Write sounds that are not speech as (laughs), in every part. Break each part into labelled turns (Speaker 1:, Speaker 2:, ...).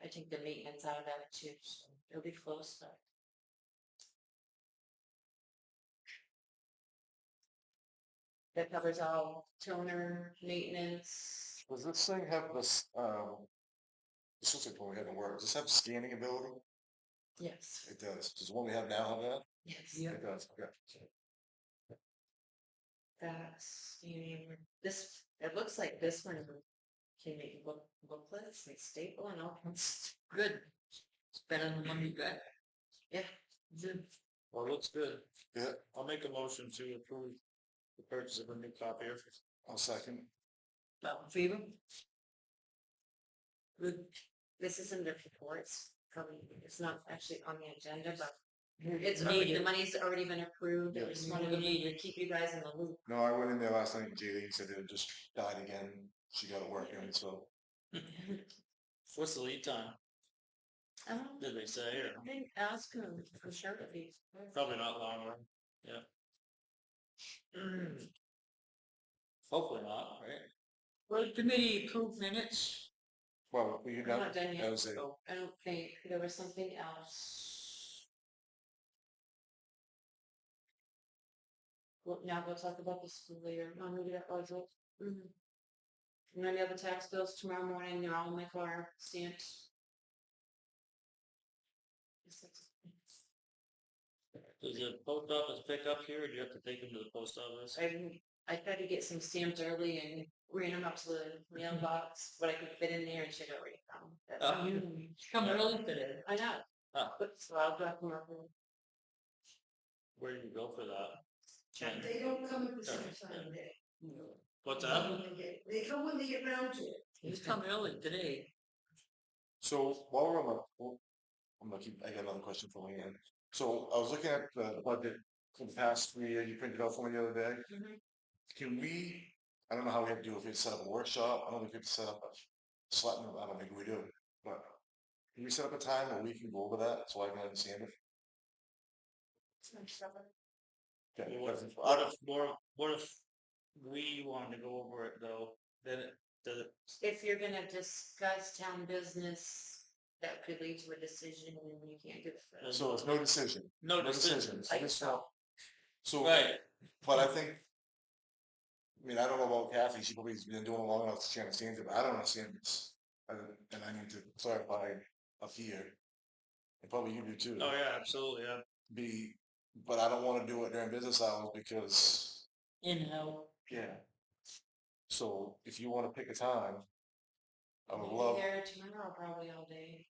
Speaker 1: I take the maintenance out of that too, so it'll be close, but. That covers all toner, maintenance,
Speaker 2: Does this thing have this, um, this looks like what we had in work, does this have scanning ability?
Speaker 1: yes,
Speaker 2: It does, does the one we have now have that?
Speaker 1: yes.
Speaker 2: It does, okay.
Speaker 1: That's, you mean, this, it looks like this one can make book, booklets, like staple and all kinds. Good. It's better than the one you got. Yeah.
Speaker 3: Well, it looks good.
Speaker 2: Yeah,
Speaker 3: I'll make a motion to approve the purchase of a new copier.
Speaker 2: I'll second.
Speaker 1: All in favor? Good. This is in the reports, probably, it's not actually on the agenda, but it's already, the money's already been approved, I
Speaker 2: Yes.
Speaker 1: just wanted to keep you guys in the loop.
Speaker 2: No, I went in there last night, and Julie said it had just died again, she got it working, so.
Speaker 1: Mm-hmm.
Speaker 3: What's the lead time?
Speaker 1: Um,
Speaker 3: Did they say or
Speaker 1: I think ask him for sure if he's.
Speaker 3: probably not long run?
Speaker 1: Mm.
Speaker 3: Hopefully not, right?
Speaker 1: Well, the committee approved minutes.
Speaker 2: Well, we,
Speaker 1: I'm
Speaker 2: that
Speaker 1: not done
Speaker 2: that
Speaker 1: yet,
Speaker 2: was it,
Speaker 1: so I don't think, there was something else. Well, now we'll talk about the school later, I'll move it up, I'll go. Mhm. And then the other tax bills tomorrow morning, they're all in my car, stamped. Yes, that's-
Speaker 3: Does the post office pick up here or do you have to take them to the post office?
Speaker 1: I, I tried to get some stamped early and ran them up to the mailbox, but I could fit in there and shit already found. That's
Speaker 3: Oh.
Speaker 1: how you- Come early today. I know.
Speaker 3: Oh.
Speaker 1: But so I'll drop them off. and
Speaker 3: Where do you go for that?
Speaker 1: check.
Speaker 4: They don't come at the
Speaker 3: Sorry,
Speaker 4: same time, they.
Speaker 3: What's that?
Speaker 4: They come when they get round to it.
Speaker 1: He's come early today.
Speaker 2: so while we're on the, well, I'm gonna keep, I got another question for Leanne. So I was looking at the budget from the past three years, you printed out for me the other day.
Speaker 1: Mhm.
Speaker 2: Can we, I don't know how we have to do, if we have to set up a workshop, I don't know if we have to set up a selectmen, I don't think we do, but can we set up a time where we can go over that, so I can understand it? Okay,
Speaker 3: Well, What
Speaker 2: that's-
Speaker 3: if, what if, more- what if we wanted to go over it though, then it, does it,
Speaker 1: If you're gonna discuss town business, that could lead to a decision and you can't do it.
Speaker 2: So it's no decision,
Speaker 3: no
Speaker 2: no
Speaker 3: decision?
Speaker 2: decision, so this, so.
Speaker 3: Right,
Speaker 2: But I think, I mean, I don't know about Kathy. She probably's been doing it long enough. She understands it, but I don't understand this. And, and I need to clarify up here. And probably you do too.
Speaker 3: oh yeah, absolutely, yeah.
Speaker 2: Be, but I don't want to do it during business hours because,
Speaker 1: In how?
Speaker 2: yeah. So if you want to pick a time, I would
Speaker 1: Maybe
Speaker 2: love,
Speaker 1: There tomorrow, probably all day.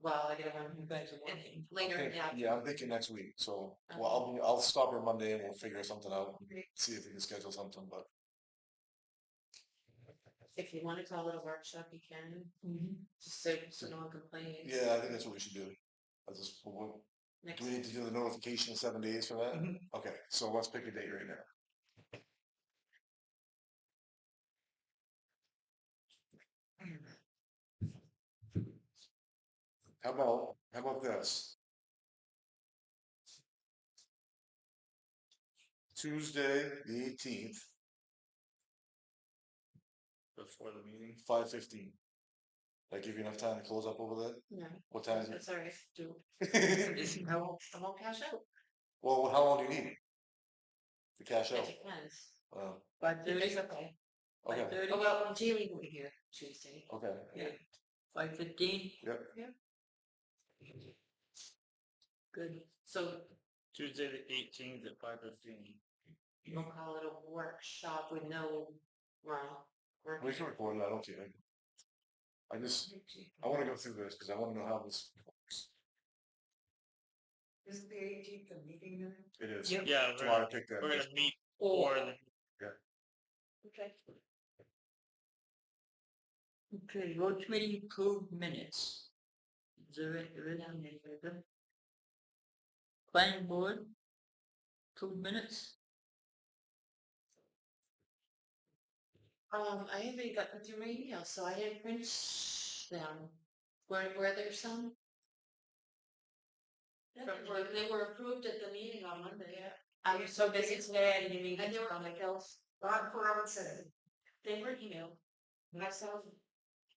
Speaker 1: Well, I gotta run back to work. Later,
Speaker 2: think-
Speaker 1: yeah.
Speaker 2: yeah, I'm thinking next week. So, well, I'll, be- I'll stop her Monday and we'll figure something out. and
Speaker 1: Okay.
Speaker 2: See if we can schedule something, but
Speaker 1: If you wanna call it a workshop, you
Speaker 4: Mm-hmm.
Speaker 1: can, just so, so no one complains.
Speaker 2: yeah, I think that's what we should do. I just, we'll,
Speaker 1: Next,
Speaker 2: Do we need to do the notification in seven days for that?
Speaker 3: Mhm.
Speaker 2: Okay, so let's pick a date right now. How about, how about this? Tuesday, the eighteenth,
Speaker 3: Before the meeting.
Speaker 2: five fifteen. That give you enough time to close up over there?
Speaker 1: no,
Speaker 2: What time
Speaker 1: that's all right, do,
Speaker 2: is it? (laughs)
Speaker 1: I won't, I won't cash out,
Speaker 2: Well, how long do you need? To cash
Speaker 1: it
Speaker 2: out?
Speaker 1: depends.
Speaker 2: Oh,
Speaker 1: Five thirty. Okay.
Speaker 2: Okay,
Speaker 1: Oh, well, Jaylee will be here Tuesday.
Speaker 2: okay.
Speaker 1: Five fifteen?
Speaker 2: Yep.
Speaker 1: Yeah. Good, so
Speaker 3: Tuesday the eighteenth at five fifteen.
Speaker 1: you'll call it a workshop with no, well, work-
Speaker 2: We can record it, I don't care. I just, I wanna go through this, cause I wanna know how this,
Speaker 4: Isn't the eighteenth a meeting night?
Speaker 2: it is.
Speaker 1: Yep.
Speaker 3: Yeah,
Speaker 2: That's
Speaker 3: we're,
Speaker 2: why I
Speaker 3: gonna-
Speaker 2: picked
Speaker 3: we're
Speaker 2: that.
Speaker 3: gonna meet for
Speaker 1: Or,
Speaker 3: the
Speaker 1: okay,
Speaker 4: Okay, road committee approved minutes. Is there any, there is any further? Planning board? Approved minutes?
Speaker 1: um, I haven't gotten through my email, so I didn't print them. Were, were there some? From- were- They were approved at the meeting on Monday, yeah. I was Um, so busy today, I didn't even. And they were on my bills.
Speaker 4: Bob Brown said.
Speaker 1: They were emailed. Myself,